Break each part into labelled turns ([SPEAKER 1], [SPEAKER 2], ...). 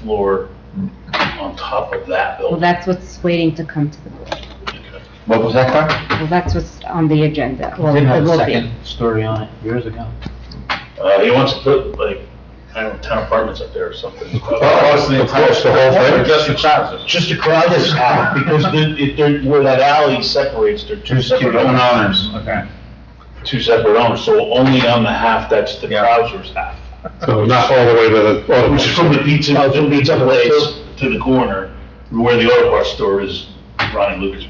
[SPEAKER 1] floor on top of that
[SPEAKER 2] Well,
[SPEAKER 1] building.
[SPEAKER 2] that's what's waiting to come to the board.
[SPEAKER 3] What was that, Clark?
[SPEAKER 2] Well, that's what's on the agenda. Well,
[SPEAKER 4] Didn't
[SPEAKER 2] it
[SPEAKER 4] have a
[SPEAKER 2] will be.
[SPEAKER 4] second story on it years ago.
[SPEAKER 1] Uh, he wants to put like, I don't know, ten apartments up there or something.
[SPEAKER 3] Uh, Across the whole thing?
[SPEAKER 1] Uh, Just the crowd. Just the crowd is out, because the, it, there- where that alley separates, they're two separate owners,
[SPEAKER 3] owners. Okay.
[SPEAKER 1] two separate owners, so only on the half that's the
[SPEAKER 3] Yeah.
[SPEAKER 1] Krausers half.
[SPEAKER 5] So Oh, not all the way to the,
[SPEAKER 1] Which is from the
[SPEAKER 5] oh,
[SPEAKER 1] pizza, from the pizza place to the corner, where the auto parts store is, Ronnie Lucas.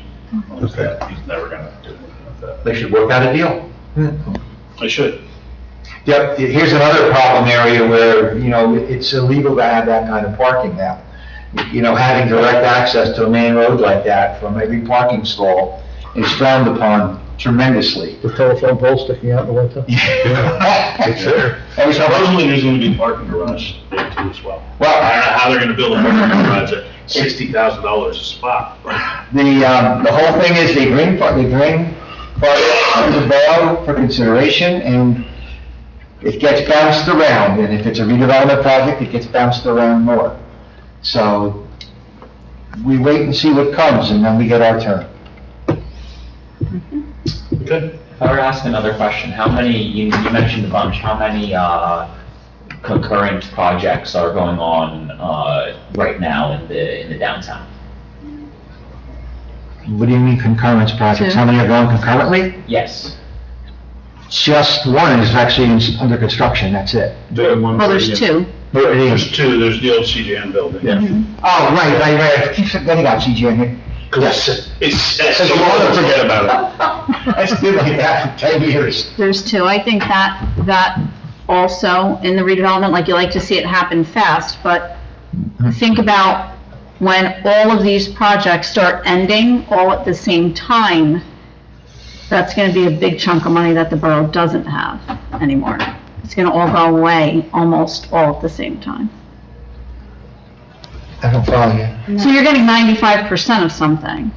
[SPEAKER 1] owns that. He's never gonna do anything with that.
[SPEAKER 3] They should work out a deal.
[SPEAKER 1] They should.
[SPEAKER 3] Yep, here's another problem area where, you know, it's illegal to have that kind of parking now. You know, having direct access to a main road like that from every parking stall is frowned upon tremendously.
[SPEAKER 6] The telephone pole sticking out the window?
[SPEAKER 5] it's there.
[SPEAKER 1] And supposedly there's gonna be a parking garage there too as well. I don't
[SPEAKER 3] Well,
[SPEAKER 1] know how they're gonna build a parking garage at sixty thousand dollars a spot.
[SPEAKER 3] the, um, the whole thing is they bring, par- they bring parking to the borough for consideration and it gets bounced around. And if it's a redevelopment project, it gets bounced around more. So we wait and see what comes and then we get our turn.
[SPEAKER 1] Okay.
[SPEAKER 4] If I were to ask another question, how many, you, you mentioned a bunch, how many, uh, concurrent projects are going on, uh, right now in the, in the downtown?
[SPEAKER 3] What do you mean concurrence projects?
[SPEAKER 7] Two.
[SPEAKER 3] How many are going concurrently?
[SPEAKER 4] Yes.
[SPEAKER 3] Just one is actually in- under construction, that's it.
[SPEAKER 7] Well, there's two.
[SPEAKER 1] There's two, there's the old CJN building. Yeah.
[SPEAKER 3] Oh, right, right, right, I keep forgetting about CGN here.
[SPEAKER 1] Cause it's, it's.
[SPEAKER 3] Says you
[SPEAKER 5] Oh,
[SPEAKER 3] wanna forget
[SPEAKER 1] about
[SPEAKER 3] That's been like that for 10 years.
[SPEAKER 7] There's two. I think that, that also in the redevelopment, like you like to see it happen fast, but think about when all of these projects start ending all at the same time, that's gonna be a big chunk of money that the borough doesn't have anymore. It's gonna all go away almost all at the same time.
[SPEAKER 3] I don't follow you.
[SPEAKER 7] So you're getting ninety-five percent of something,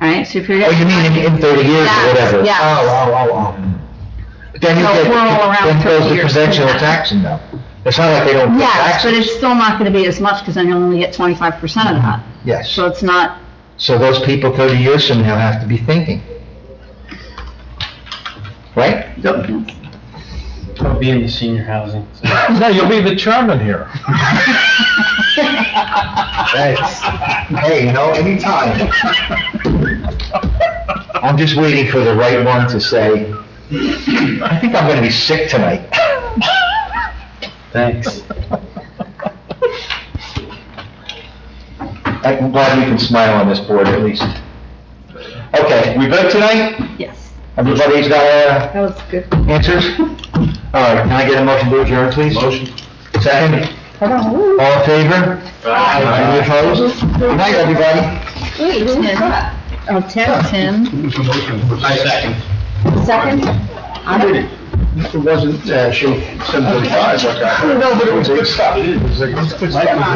[SPEAKER 7] right? So if you're
[SPEAKER 3] Oh,
[SPEAKER 7] getting.
[SPEAKER 3] you mean in- in 30 years or
[SPEAKER 7] Yes,
[SPEAKER 3] whatever?
[SPEAKER 7] yes.
[SPEAKER 3] Oh, oh, oh, oh. Then you
[SPEAKER 7] No,
[SPEAKER 3] get,
[SPEAKER 7] we're all around
[SPEAKER 3] then
[SPEAKER 7] 30
[SPEAKER 3] goes the
[SPEAKER 7] years.
[SPEAKER 3] conventional taxing though. It's not like they don't pay
[SPEAKER 7] Yes, but it's
[SPEAKER 3] taxes.
[SPEAKER 7] still not gonna be as much, because then you only get twenty-five percent of that.
[SPEAKER 3] Yes,
[SPEAKER 7] So it's not,
[SPEAKER 3] so those people 30 years from now have to be thinking. Right?
[SPEAKER 4] I'll be in the senior housing.
[SPEAKER 6] No, you'll be the chairman here.
[SPEAKER 3] Thanks. Hey, you know, anytime. I'm just waiting for the right one to say, I think I'm gonna be sick tonight.
[SPEAKER 4] Thanks.
[SPEAKER 3] I'm glad we can smile on this board at least. Okay, we good tonight?
[SPEAKER 7] yes,
[SPEAKER 3] Everybody's got uh,
[SPEAKER 2] That was good.
[SPEAKER 3] answers? All right, can I get a motion to adjourn, please?
[SPEAKER 1] Motion.
[SPEAKER 3] Second? All in favor? Any opposed? Good night, everybody.
[SPEAKER 2] Oh, Tim,
[SPEAKER 7] Tim,
[SPEAKER 1] Second.
[SPEAKER 2] second? I don't know.
[SPEAKER 3] It wasn't, uh, she, somebody. No, but it was good stuff. It was good stuff.